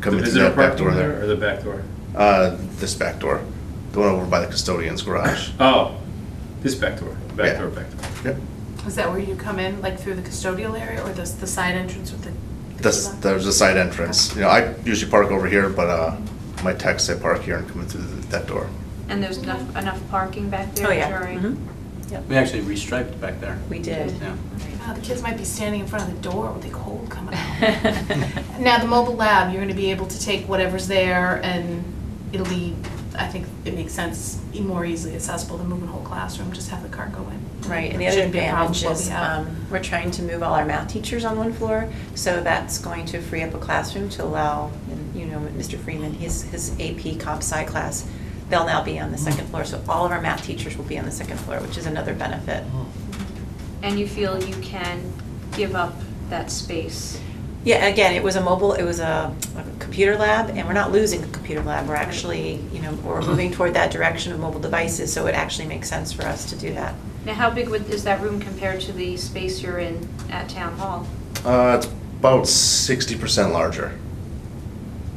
coming Is through there a that back parking door there there. or the back door? Uh, this back door, the one over by the custodian's garage. Oh, this back door, back Yeah. door, back door. Yep. Is that where you come in, like through the custodial area or the, the side entrance with the? the That's, key lock? there's a side entrance. You know, I usually park over here, but, uh, my techs say park here and come in through th- that door. And there's enough, enough parking back there Oh, yeah. during? Mhm. We actually restriped back there. We did. Yeah. Ah, the kids might be standing in front of the door with a cold coming out. Now, the mobile lab, you're gonna be able to take whatever's there and it'll be, I think it makes sense, e- more easily accessible than moving a whole classroom, just have the cart go in. Right, and the other Shouldn't be a problem advantage what we is, have. um, we're trying to move all our math teachers on one floor, so that's going to free up a classroom to allow, and you know, Mr. Freeman, his, his AP comp sci class, they'll now be on the second floor, so all of our math teachers will be on the second floor, which is another benefit. And you feel you can give up that space? Yeah, again, it was a mobile, it was a a computer lab, and we're not losing the computer lab, we're actually, you know, we're moving toward that direction of mobile devices, so it actually makes sense for us to do that. Now, how big would- is that room compared to the space you're in at Town Hall? Uh, it's about sixty percent larger.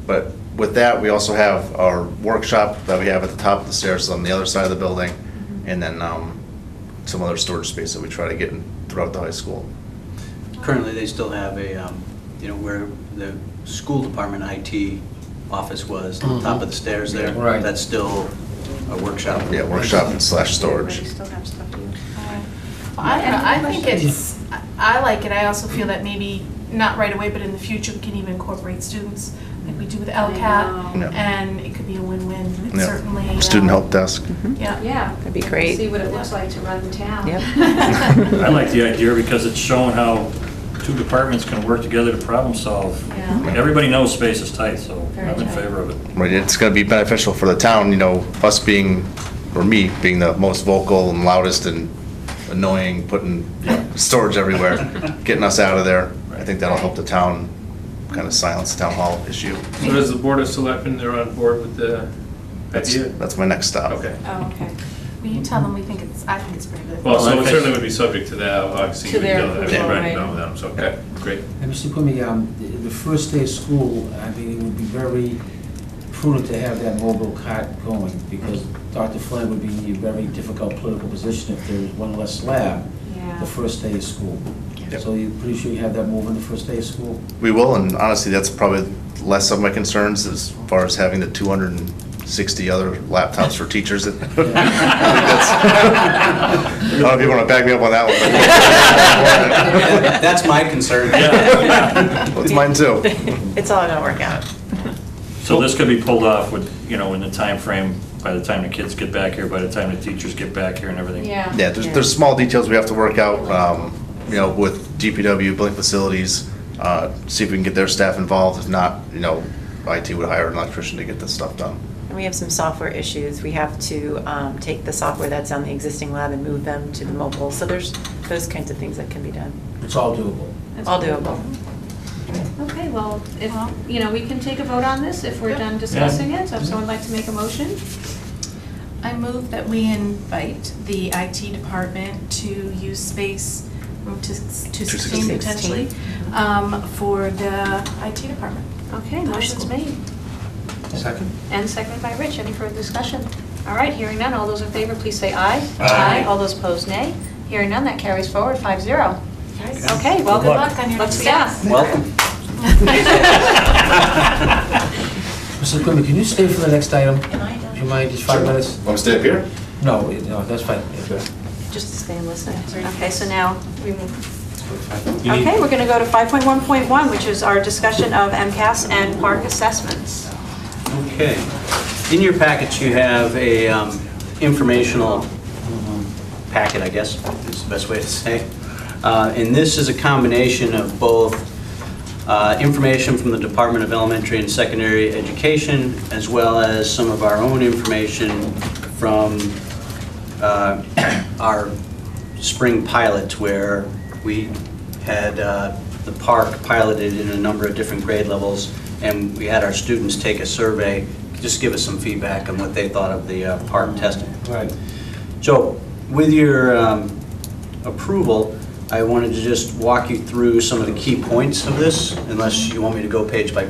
But with that, we also have our workshop that we have at the top of the stairs on the other side of the building, and then, um, some other storage space that we try to get in throughout the high school. Currently, they still have a, um, you know, where the school department IT office was, on top of the stairs there. Mhm. Right. That's still a workshop. Yeah, workshop slash Or storage. you still have stuff to do? Well, I, don't know. I think Any it's, I I like it, I also feel that maybe, not right away, but in the future, we can even incorporate students, like we do with I know. LCAT, and it could be a win-win, Yeah. certainly. uh, Student help desk. Yeah. Uh, Yeah. That'd be great. See what it looks like to run the town. Yep. I like the idea because it's showing how two departments can work together to problem solve. Yeah. Like, Everybody knows space is tight, so Very I'm in tight. favor of it. Right, it's gonna be beneficial for the town, you know, us being, or me, being the most vocal and loudest and annoying, putting you know, storage everywhere, getting us out of there. I think that'll help the town kind of silence the town hall issue. So does the Board of Selectmen, they're on board with the That's, idea? that's my next stop. Okay. Oh, okay. Will you tell them we think it's, I think it's pretty good. Well, so Well, it if certainly it's- would be subject to that, obviously. To you would their know that, approval, right, right. know them, So, okay, great. And Mr. Kumi, um, the the first day of school, I think it would be very prudent to have that mobile cart going because Dr. Flynn would be in a very difficult political position if there was one less lab Yeah. the first day of school. Yep. So you're pretty sure you have that moving the first day of school? We will, and honestly, that's probably less of my concerns as far as having the two hundred and sixty other laptops for teachers. I think that's- I don't know if you wanna back me up on that one. but- That's my concern. That's mine too. It's all gonna work out. So this could be pulled off with, you know, in the time frame. by the time the kids get back here, by the time the teachers get back here and everything. Yeah. Yeah, there's, there's small details we have to work out, um, you know, with DPW, building facilities, uh, see if we can get their staff involved. If not, you know, IT would hire an electrician to get this stuff done. And we have some software issues. We have to um, take the software that's on the existing lab and move them to the mobile. So there's those kinds of things that can be done. It's all doable. That's All cool. doable. Okay, well, if, Well- you know, we can take a vote on this if we're Yep. done discussing it. So if someone would like to make a motion? I move that we invite the IT department to use space, room to to 16 16. potentially, um, for the IT department. Okay, motion's made. Second? And seconded by Rich. Any further discussion? All right, hearing none. All those in favor, please say aye. Aye. All those opposed, nay. Hearing none, that carries forward, 5-0. Yes. Okay, Well, good welcome. luck on your next Let's staff. Welcome. Mrs. Kumi, can you stay for the next item? Am I Do you mind, just five minutes? Want to stay up here? No, it- no, that's fine. Just to stay and listen. Okay, so now we move. You need- Okay, we're going to go to 5.1.1, which is our discussion of MCAS and park assessments. Okay. In your package, you have a um, informational um, packet, I guess, is the best way to say. Uh, And this is a combination of both uh, information from the Department of Elementary and Secondary Education, as well as some of our own information from uh, our spring pilot, where we had uh, the park piloted in a number of different grade levels, and we had our students take a survey, just give us some feedback on what they thought of the uh, park testing. Right. So with your um, approval, I wanted to just walk you through some of the key points of this, unless you want me to go page by